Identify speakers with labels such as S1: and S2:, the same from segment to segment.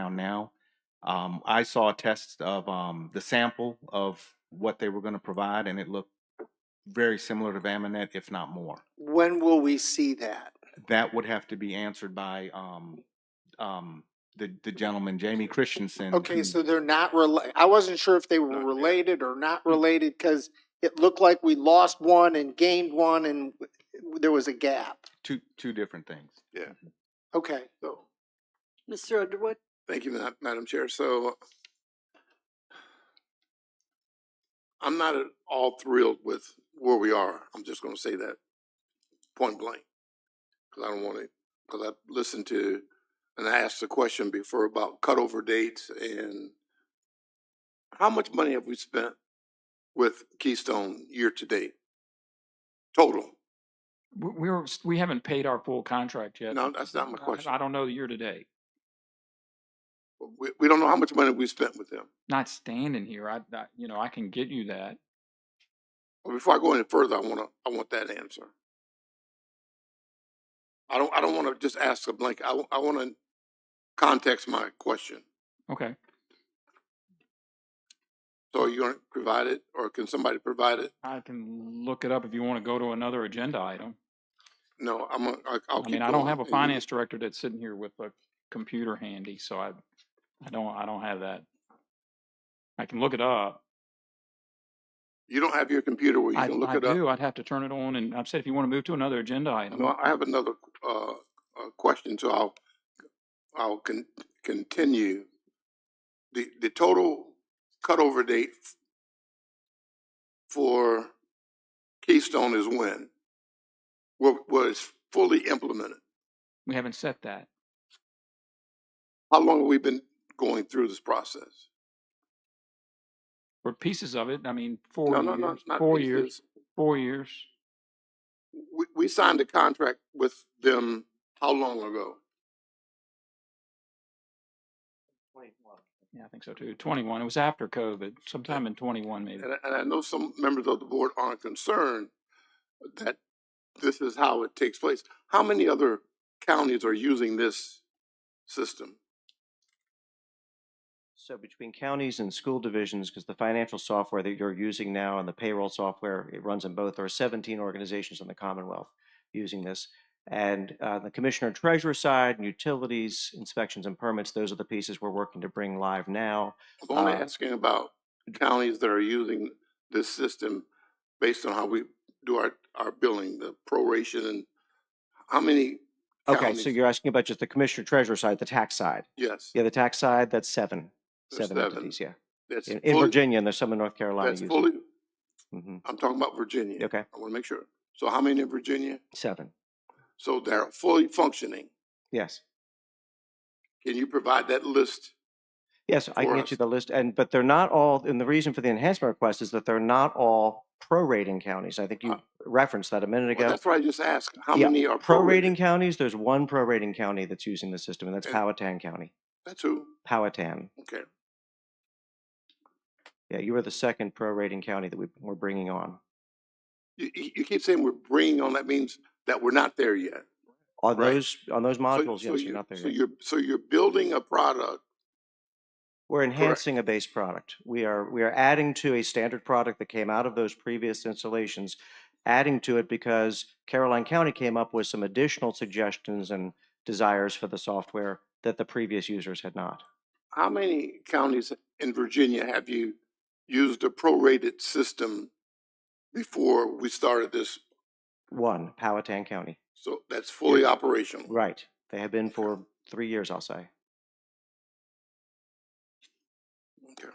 S1: around now. Um, I saw a test of um, the sample of what they were going to provide, and it looked very similar to Vaminet, if not more.
S2: When will we see that?
S1: That would have to be answered by um, um, the, the gentleman, Jamie Christensen.
S2: Okay,
S1: who-
S2: so they're not rela, I wasn't sure if they were related or not related, cause it looked like we lost one and gained one and w- there was a gap.
S1: two two different things.
S2: Okay,
S3: So,
S4: Mr. Underwood?
S3: thank you, Ma- Madam Chair. So I'm not at all thrilled with where we are. I'm just gonna say that point blank. Cause I don't want to, cause I listened to, and I asked the question before about cutover dates and how much money have we spent with Keystone year to date? Total?
S5: We- We're, s- we haven't paid our full contract yet.
S3: No, that's not my
S5: I-
S3: question.
S5: I don't know the year to date.
S3: We, we don't know how much money we spent with them.
S5: Not standing here, I, I, you know, I can get you that.
S3: Well, Before I go any further, I wanna, I want that answer. I don't, I don't wanna just ask a blank, I, wa- I wanna context my question.
S5: Okay.
S3: So are you gonna provide it, or can somebody provide it?
S5: I can look it up if you want to go to another agenda item.
S3: No, I'm, gonna- I- I'll
S5: I
S3: Oh, keep
S5: mean,
S3: going.
S5: I don't have a
S3: and you-
S5: finance director that's sitting here with a computer handy, so I, I don't, I don't have that. I can look it up.
S3: You don't have your computer where you
S5: I,
S3: can look
S5: I
S3: it up?
S5: do, I'd have to turn it on and I've said if you want to move to another agenda item.
S3: No, I have another, uh, uh, question, so I'll, I'll con- continue. The, the total cutover date f- for Keystone is when? Wa- Was fully implemented?
S5: We haven't set that.
S3: How long have we been going through this process?
S5: Or pieces of it, I mean, four
S3: No, no, no,
S5: years,
S3: it's not.
S5: four
S3: it's-
S5: years,
S3: it's-
S5: four years.
S3: We, we signed a contract with them how long ago?
S5: Yeah, I think so too. Twenty-one, it was after COVID, sometime in twenty-one maybe.
S3: And I, and I know some members of the board aren't concerned that this is how it takes place. How many other counties are using this system?
S6: So between counties and school divisions, because the financial software that you're using now and the payroll software, it runs in both, there are 17 organizations in the Commonwealth using this. And uh, the commissioner and treasurer side, and utilities, inspections and permits, those are the pieces we're working to bring live now.
S3: I'm only
S6: Uh,
S3: asking about counties that are using this system based on how we do our, our billing, the proration and how many?
S6: Okay,
S3: counties-
S6: so you're asking about just the commissioner treasurer side, the tax side.
S3: Yes.
S6: Yeah, the tax side, that's seven,
S3: There's
S6: seven entities, yeah.
S3: That's
S6: In in
S3: fully-
S6: Virginia, and there's some in North Carolina
S3: That's
S6: using.
S3: fully,
S6: Mhm,
S3: I'm talking about Virginia.
S6: Okay,
S3: I want to make sure. So how many in Virginia?
S6: seven,
S3: So they're fully functioning.
S6: yes.
S3: Can you provide that list?
S6: Yes, I
S3: for
S6: can get you
S3: us.
S6: the list, and, but they're not all, and the reason for the enhancement request is that they're not all prorating counties. I think you
S3: Uh,
S6: referenced that a minute
S3: Well,
S6: ago.
S3: that's what I just asked. How
S6: Yeah,
S3: many are
S6: Prorating counties, there's one prorating county that's using the system, and that's
S3: And-
S6: Powhatan County,
S3: That's who?
S6: Powhatan.
S3: Okay.
S6: Yeah, you were the second prorating county that we we're bringing on.
S3: You, you you keep saying we're bringing on, that means that we're not there yet.
S6: On
S3: Right.
S6: those, on those
S3: So-
S6: modules,
S3: so
S6: yes,
S3: you-
S6: you're not there
S3: So
S6: yet.
S3: you're, so you're building a product.
S6: We're enhancing a base product. We are, we are adding to a standard product that came out of those previous installations, adding to it because Caroline County came up with some additional suggestions and desires for the software that the previous users had not.
S3: How many counties in Virginia have you used a prorated system before we started this?
S6: One, Powhatan County.
S3: So that's fully operational.
S6: Right. They have been for three years, I'll say.
S3: Okay.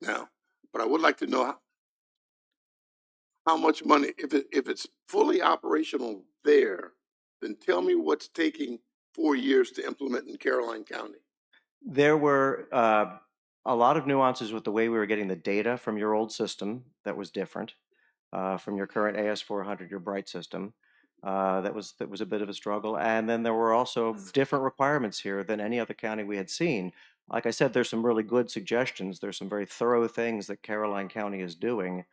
S3: Now, but I would like to know how, how much money, if it, if it's fully operational there, then tell me what's taking four years to implement in Caroline County.
S6: There were uh, a lot of nuances with the way we were getting the data from your old system that was different uh, from your current AS400, your Bright system. Uh, that was that was a bit of a struggle, and then there were also different requirements here than any other county we had seen. Like I said, there's some really good suggestions. There's some very thorough things that Caroline County is doing,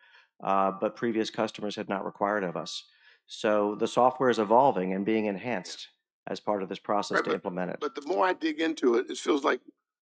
S6: uh, but previous customers had not required of us. So the software is evolving and being enhanced as part of this process
S3: Right,
S6: to implement it.
S3: But the more I dig into it, it feels like